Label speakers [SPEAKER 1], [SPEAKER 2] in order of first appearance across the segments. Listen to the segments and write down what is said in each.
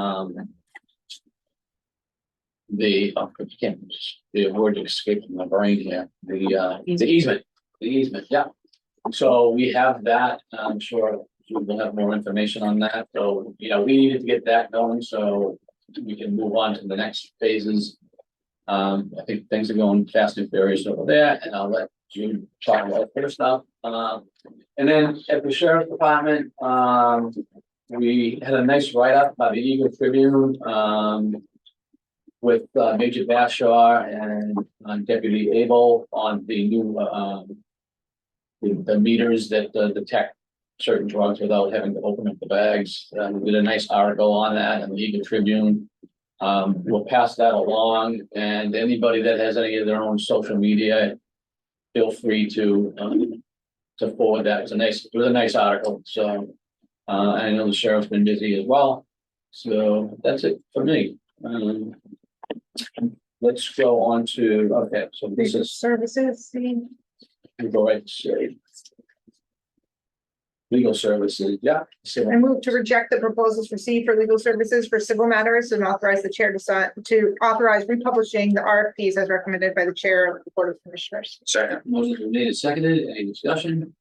[SPEAKER 1] Um. The, oh, I can't, the word escaped my brain here, the, uh, the easement, the easement, yeah. So we have that, I'm sure we'll have more information on that, so, you know, we needed to get that going, so we can move on to the next phases. Um, I think things are going fast and furious over there, and I'll let June talk about her stuff, um. And then at the sheriff's department, um, we had a nice write-up by the Eagle Tribune, um. With uh, Major Bashar and uh, Deputy Abel on the new, uh, um. The, the meters that uh, detect certain drugs without having to open up the bags, and we did a nice article on that in the Eagle Tribune. Um, we'll pass that along, and anybody that has any of their own social media. Feel free to, um, to forward that, it's a nice, it was a nice article, so. Uh, I know the sheriff's been busy as well, so that's it for me. Um, let's go on to, okay, so this
[SPEAKER 2] Legal
[SPEAKER 1] is,
[SPEAKER 2] services, the
[SPEAKER 1] go right to. Legal services, yeah.
[SPEAKER 2] I move to reject the proposals received for legal services for civil matters and authorize the chair to sign, to authorize republishing the RFPs as recommended by the chair of the Board of Commissioners.
[SPEAKER 1] Second. Motion's been made and seconded, any discussion?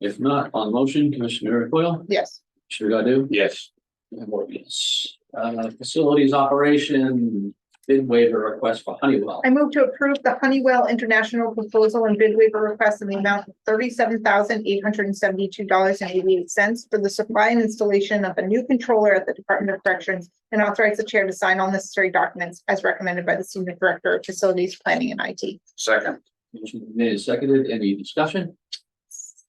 [SPEAKER 1] If not, on the motion, Commissioner Coyle,
[SPEAKER 2] Yes,
[SPEAKER 1] Commissioner Godu?
[SPEAKER 3] Yes,
[SPEAKER 1] I vote yes. Uh, facilities operation bid waiver request for Honeywell.
[SPEAKER 2] I move to approve the Honeywell International proposal and bid waiver request in the amount of thirty-seven thousand eight hundred and seventy-two dollars and eighty-eight cents for the supply and installation of a new controller at the Department of Corrections and authorize the chair to sign all necessary documents as recommended by the Senior Director of Facilities Planning and IT.
[SPEAKER 3] second,
[SPEAKER 1] Motion's been made and seconded, any discussion?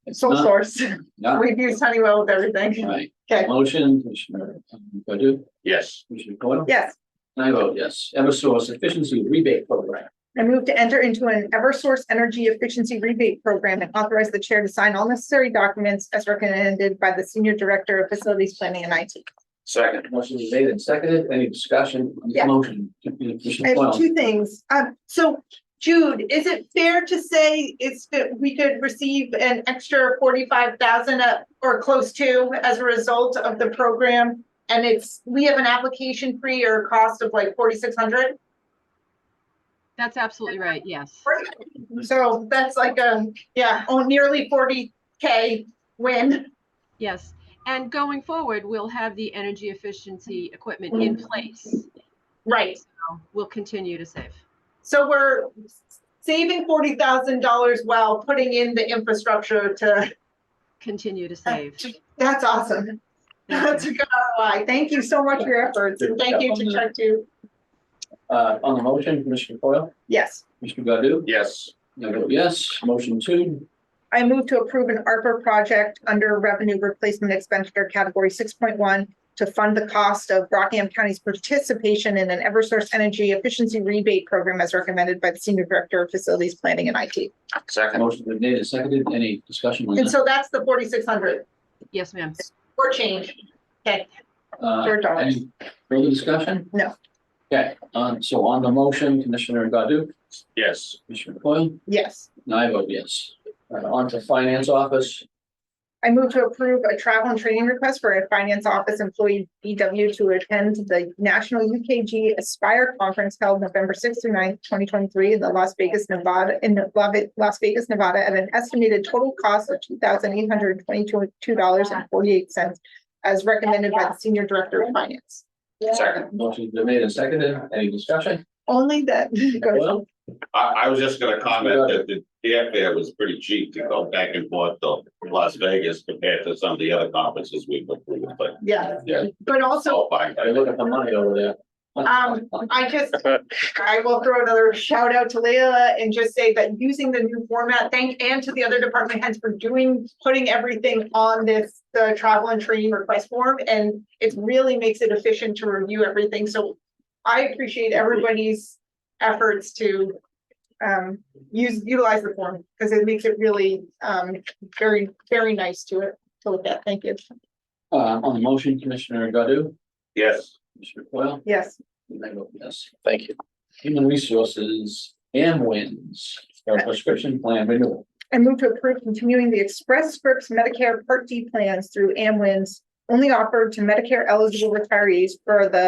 [SPEAKER 1] If
[SPEAKER 2] Sole
[SPEAKER 1] not,
[SPEAKER 2] source.
[SPEAKER 1] Not,
[SPEAKER 2] We've used Honeywell with everything.
[SPEAKER 1] right.
[SPEAKER 2] Okay,
[SPEAKER 1] Motion, Commissioner Godu,
[SPEAKER 3] yes,
[SPEAKER 1] Commissioner Coyle?
[SPEAKER 2] yes.
[SPEAKER 1] I vote yes. Eversource efficiency rebate program.
[SPEAKER 2] I move to enter into an Eversource Energy Efficiency Rebate Program and authorize the chair to sign all necessary documents as recommended by the Senior Director of Facilities Planning and IT.
[SPEAKER 3] second,
[SPEAKER 1] Motion is made and seconded, any discussion on the
[SPEAKER 2] Yeah.
[SPEAKER 1] motion?
[SPEAKER 2] I
[SPEAKER 1] Commissioner
[SPEAKER 2] have
[SPEAKER 1] Coyle?
[SPEAKER 2] two things. Um, so Jude, is it fair to say it's that we could receive an extra forty-five thousand or close to as a result of the program? And it's, we have an application fee or cost of like forty-six hundred?
[SPEAKER 4] That's absolutely right, yes.
[SPEAKER 2] So that's like a, yeah, oh, nearly forty K win.
[SPEAKER 4] Yes, and going forward, we'll have the energy efficiency equipment in place.
[SPEAKER 2] Right.
[SPEAKER 4] So We'll continue to save.
[SPEAKER 2] So we're saving forty thousand dollars while putting in the infrastructure to,
[SPEAKER 4] Continue to save.
[SPEAKER 2] that's awesome. That's a good ROI. Thank you so much for your efforts and thank you to Chuck too.
[SPEAKER 1] Uh, on the motion, Commissioner Coyle,
[SPEAKER 2] Yes.
[SPEAKER 1] Commissioner Godu?
[SPEAKER 3] yes,
[SPEAKER 1] I vote yes. Motion two,
[SPEAKER 2] I move to approve an ARPA project under revenue replacement expenditure category six point one to fund the cost of Rockingham County's participation in an Eversource Energy Efficiency Rebate Program as recommended by the Senior Director of Facilities Planning and IT.
[SPEAKER 3] second,
[SPEAKER 1] motion is made and seconded, any discussion on
[SPEAKER 2] And
[SPEAKER 1] that?
[SPEAKER 2] so that's the forty-six hundred
[SPEAKER 4] Yes, ma'am.
[SPEAKER 2] or change. Okay,
[SPEAKER 1] Uh,
[SPEAKER 2] third dollars.
[SPEAKER 1] any further discussion?
[SPEAKER 2] No.
[SPEAKER 1] Okay, um, so on the motion, Commissioner Godu,
[SPEAKER 3] yes,
[SPEAKER 1] Commissioner Coyle,
[SPEAKER 2] Yes.
[SPEAKER 1] and I vote yes. Uh, on to finance office,
[SPEAKER 2] I move to approve a travel and training request for a finance office employee BW to attend the National UKG Aspire Conference held November sixth through 9th, twenty twenty-three in the Las Vegas, Nevada, in the Lava- Las Vegas, Nevada, at an estimated total cost of two thousand eight hundred twenty-two, two dollars and forty-eight cents as recommended by the Senior Director of Finance.
[SPEAKER 3] second.
[SPEAKER 1] motion is made and seconded, any discussion?
[SPEAKER 2] Only that goes,
[SPEAKER 1] Coyle?
[SPEAKER 3] I, I was just gonna comment that the the airfare was pretty cheap to go back and forth to Las Vegas compared to some of the other conferences we've been to, but
[SPEAKER 2] yeah,
[SPEAKER 3] yeah,
[SPEAKER 2] but
[SPEAKER 3] it's
[SPEAKER 2] also
[SPEAKER 3] all fine.
[SPEAKER 1] I look at the money over there.
[SPEAKER 2] Um, I just, I will throw another shout out to Leila and just say that using the new format, thank, and to the other department heads for doing, putting everything on this, the travel and training request form, and it really makes it efficient to review everything, so I appreciate everybody's efforts to um, use, utilize the form, because it makes it really, um, very, very nice to it, to look at, thank you.
[SPEAKER 1] Uh, on the motion, Commissioner Godu,
[SPEAKER 3] Yes,
[SPEAKER 1] Commissioner Coyle,
[SPEAKER 2] Yes,
[SPEAKER 1] and I vote yes.
[SPEAKER 5] Thank you.
[SPEAKER 1] Human Resources and Wins, our prescription plan renewal.
[SPEAKER 2] I move to approve continuing the Express Scripts Medicare Part D plans through Amwins only offered to Medicare eligible retirees for the